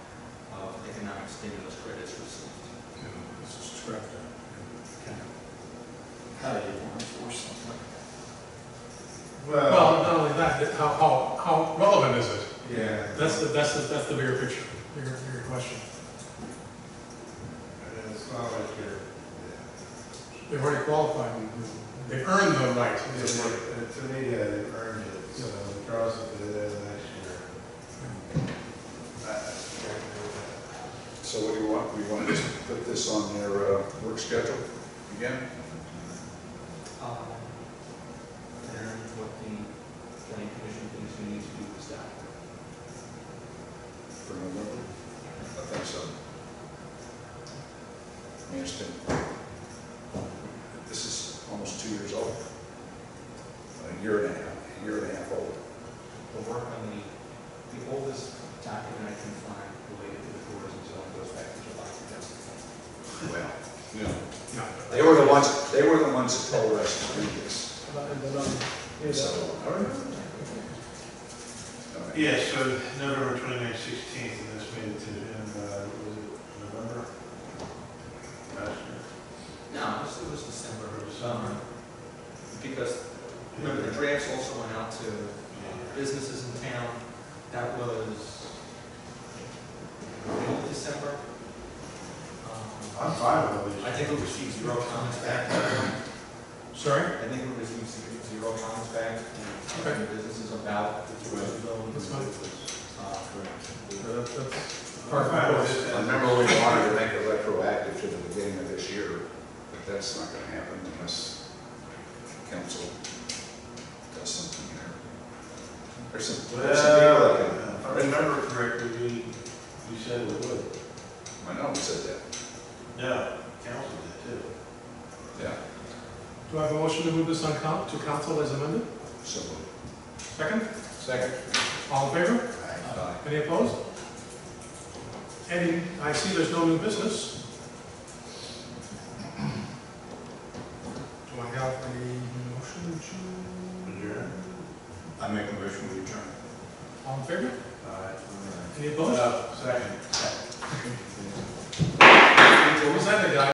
stimulus credits received. you know, this is correct. uh, kind of- How do you enforce something like that? Well, uh, Well, not only that, it- how, how, how relevant is it? yeah. That's the, that's the, that's the bigger picture, bigger, bigger question. It's not like you're, yeah. They've already qualified, they've earned the right. Yeah, It's like- they- uh, To me, yeah, they earned it, so the cross will be there next year. I- I can't do that. So what do you want, we want to put this on their uh, work schedule again? Um, And what the planning commission thinks we need to do with that. For November? I think so. I mean, it's been, this is almost two years old. A year and a half, a year and a half old. The work on the, the oldest document I can find related to the tourism zone goes back to July 2010. Well, you know, No. they were the ones, they were the ones that told us to do this. It's- So, all right. All right. Yeah, so November twenty-nine sixteen, and this made it to, in, uh, was it November? Last year. No, it was, it was December. Or December. Because, remember, the drafts also went out to businesses in town. That was middle of December. Um, I'm fine with all these. I think we received zero comments back. Sorry? I think we received ze- zero comments back Okay. from the businesses about the tourism zone. That's fine. Uh, Uh, That's, that's I'm part of fine the with course. it. I remember we wanted to make it retroactive to the beginning of this year, but that's not gonna happen unless council does something there. There's some, there's some people that Well, if I remember correctly, you, you said it would. can- I know we said that, No, council did too. yeah, Do I have a motion to move this on coun, to council as amended? so. Second? Second. All in favor? Aye. Any opposed? Any, I see there's no new business. Do I have a motion to? Adjourn. I make a motion to adjourn. All in favor? Aye. Any opposed? Uh, Second. What was that, the guy?